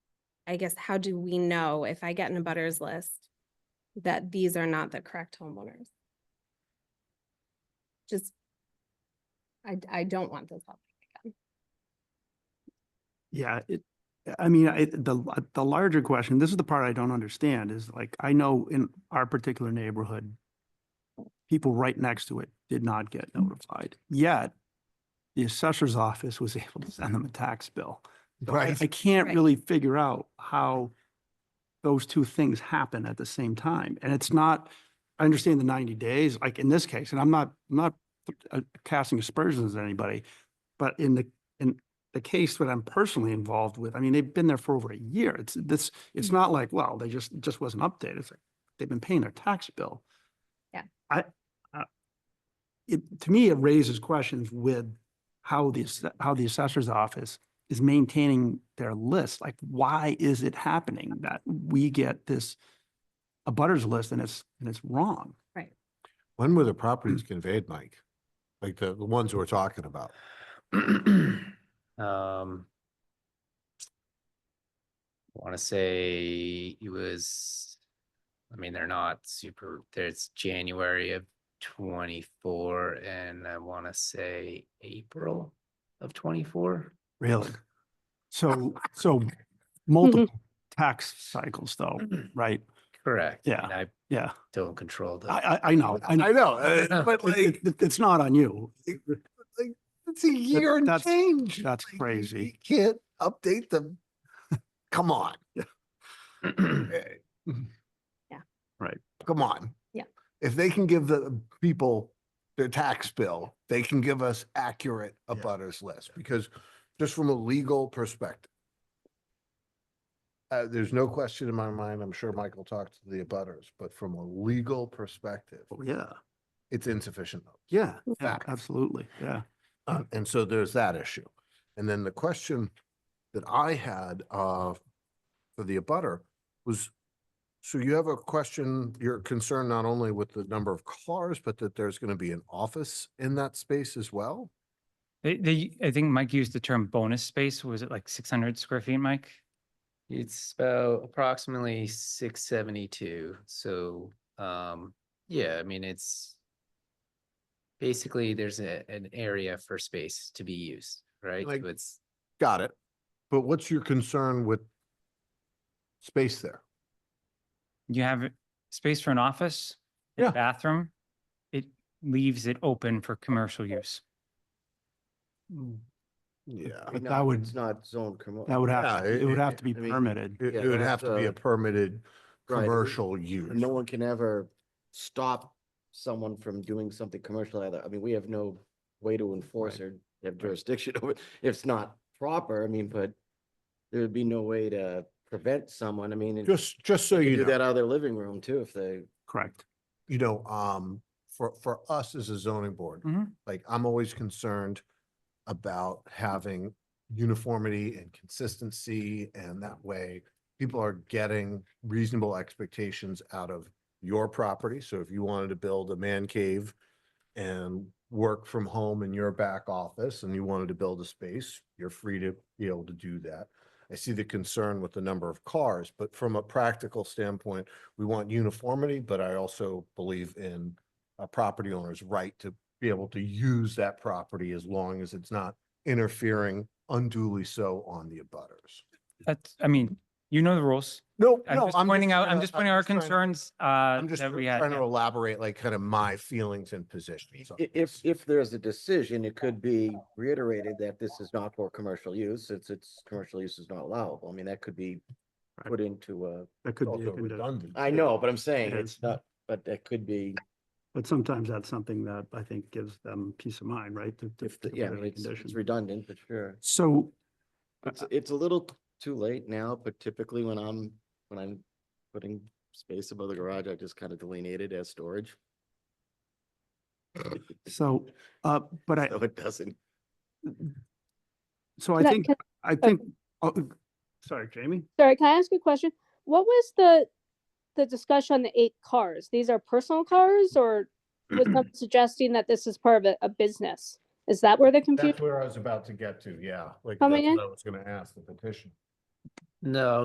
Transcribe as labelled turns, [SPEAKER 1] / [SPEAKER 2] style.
[SPEAKER 1] I guess, how do we know if I get in a butters list that these are not the correct homeowners? Just, I, I don't want this happening.
[SPEAKER 2] Yeah, it, I mean, I, the, the larger question, this is the part I don't understand, is like, I know in our particular neighborhood, people right next to it did not get notified, yet the assessor's office was able to send them a tax bill. So I- I can't
[SPEAKER 1] Right.
[SPEAKER 2] really figure out how those two things happen at the same time. And it's not, I understand the ninety days, like in this case, and I'm not, I'm not uh, casting aspersions at anybody, but in the, in the case that I'm personally involved with, I mean, they've been there for over a year. It's this, it's not like, well, they just, it just wasn't updated. It's like, they've been paying their tax bill.
[SPEAKER 1] Yeah.
[SPEAKER 2] I, I- it, to me, it raises questions with how the, ass- how the assessor's office is maintaining their list. Like, why is it happening that we get this a butters list and it's, and it's wrong?
[SPEAKER 3] When were the
[SPEAKER 2] Mm.
[SPEAKER 3] properties conveyed, Mike? Like the, the ones we're talking about?
[SPEAKER 4] Um. Want to say it was, I mean, they're not super, there's January of twenty-four and I want to say April of twenty-four.
[SPEAKER 2] Really? So, so multiple tax cycles though,
[SPEAKER 4] Mm.
[SPEAKER 2] right?
[SPEAKER 4] Correct.
[SPEAKER 2] Yeah.
[SPEAKER 4] And I
[SPEAKER 2] Yeah,
[SPEAKER 4] don't control the.
[SPEAKER 2] I, I, I know, I know.
[SPEAKER 3] I know, uh,
[SPEAKER 4] Yeah.
[SPEAKER 3] but
[SPEAKER 2] It-
[SPEAKER 3] like,
[SPEAKER 2] it- it- It's not on you.
[SPEAKER 3] it's a year and
[SPEAKER 2] that's-
[SPEAKER 3] change.
[SPEAKER 2] that's
[SPEAKER 3] Like, you-
[SPEAKER 2] crazy.
[SPEAKER 3] You Can't update them. Come on. Eh,
[SPEAKER 1] Yeah.
[SPEAKER 2] Right.
[SPEAKER 3] Come on.
[SPEAKER 1] Yeah.
[SPEAKER 3] If they can give the people their tax bill, they can give us accurate
[SPEAKER 5] Yeah.
[SPEAKER 3] abutters list, because just from a legal perspective. Uh, there's no question in my mind, I'm sure Michael talked to the abutters, but from a legal perspective,
[SPEAKER 2] Oh, Yeah,
[SPEAKER 3] it's insufficient. notice.
[SPEAKER 2] yeah, yeah,
[SPEAKER 3] Fact.
[SPEAKER 2] absolutely, yeah.
[SPEAKER 3] Uh, And so there's that issue. And then the question that I had uh, for the abutter was, so you have a question, you're concerned not only with the number of cars, but that there's going to be an office in that space as well?
[SPEAKER 6] They, they, I think Mike used the term bonus space. Was it like six hundred square feet, Mike?
[SPEAKER 4] It's about approximately six seventy-two, so, um, yeah, I mean, it's. Basically, there's a, an area for space to be used, right?
[SPEAKER 3] Like-
[SPEAKER 4] So It's,
[SPEAKER 3] Got it. But what's your concern with space there?
[SPEAKER 6] You have space for an office, a
[SPEAKER 3] Yeah.
[SPEAKER 6] bathroom. It leaves it open for commercial use.
[SPEAKER 3] Yeah.
[SPEAKER 2] But that would-
[SPEAKER 5] It's not zone commercial.
[SPEAKER 2] That would have,
[SPEAKER 3] Yeah,
[SPEAKER 2] to- it
[SPEAKER 3] it-
[SPEAKER 2] would have
[SPEAKER 3] it-
[SPEAKER 2] to be
[SPEAKER 5] I mean,
[SPEAKER 2] permitted.
[SPEAKER 3] It
[SPEAKER 5] Yeah,
[SPEAKER 3] it would
[SPEAKER 5] that's
[SPEAKER 3] have to be
[SPEAKER 5] a-
[SPEAKER 3] a permitted
[SPEAKER 5] Right, it-
[SPEAKER 3] commercial
[SPEAKER 5] And No
[SPEAKER 3] use.
[SPEAKER 5] one can ever stop someone from doing something commercial either. I mean, we have no way to enforce or have jurisdiction over, it if it's not proper, I mean, but there would be no way to prevent someone, I mean, and
[SPEAKER 3] Just, just so
[SPEAKER 5] they could
[SPEAKER 3] you
[SPEAKER 5] do
[SPEAKER 3] know.
[SPEAKER 5] that out of their living room too, if they,
[SPEAKER 2] Correct.
[SPEAKER 3] you know, um, for, for us as a zoning board,
[SPEAKER 6] Mhm.
[SPEAKER 3] like I'm always concerned about having uniformity and consistency and that way people are getting reasonable expectations out of your property. So if you wanted to build a man cave and work from home in your back office and you wanted to build a space, you're free to be able to do that. I see the concern with the number of cars, but from a practical standpoint, we want uniformity, but I also believe in a property owner's right to be able to use that property as long as it's not interfering unduly so on the abutters.
[SPEAKER 6] That's, I mean, you know the rules.
[SPEAKER 3] No,
[SPEAKER 6] I'm just pointing out, I'm just pointing out our concerns, uh,
[SPEAKER 3] I'm just
[SPEAKER 6] that we had.
[SPEAKER 3] trying to
[SPEAKER 6] yeah.
[SPEAKER 3] elaborate like kind of my feelings and positions. on
[SPEAKER 5] i-
[SPEAKER 3] this.
[SPEAKER 5] if, if there's a decision, it could be reiterated that this is not for commercial use, it's, it's, commercial use is not allowable. I mean, that could be
[SPEAKER 2] Right.
[SPEAKER 5] put into a,
[SPEAKER 2] That could be, a
[SPEAKER 3] Also
[SPEAKER 2] condi-
[SPEAKER 3] redundant,
[SPEAKER 5] I
[SPEAKER 3] too.
[SPEAKER 5] know, but I'm saying
[SPEAKER 2] It
[SPEAKER 5] it's
[SPEAKER 2] is.
[SPEAKER 5] not, but that could be.
[SPEAKER 2] but sometimes that's something that I think gives them peace of mind, right? to- to-
[SPEAKER 5] If, the-
[SPEAKER 2] to
[SPEAKER 5] yeah, I
[SPEAKER 2] put in
[SPEAKER 5] mean,
[SPEAKER 2] a
[SPEAKER 5] it's, it's
[SPEAKER 2] condition.
[SPEAKER 5] redundant, but sure.
[SPEAKER 2] So,
[SPEAKER 5] It's, it's a little t- too late now, but typically when I'm, when I'm putting space above the garage, I just kind of delineate it as storage.
[SPEAKER 2] so, uh, but I,
[SPEAKER 5] So it doesn't,
[SPEAKER 2] so I
[SPEAKER 7] Can I-
[SPEAKER 2] think,
[SPEAKER 7] can-
[SPEAKER 2] I think, oh, sorry, Jamie?
[SPEAKER 7] Sorry, can I ask you a question? What was the, the discussion on the eight cars? These are personal cars or was someone suggesting that this is part of a, a business? Is that where the confusion?
[SPEAKER 3] That's where I was about to get to, yeah. Like, that's
[SPEAKER 7] Coming in?
[SPEAKER 3] what I was gonna ask the petition.
[SPEAKER 4] no,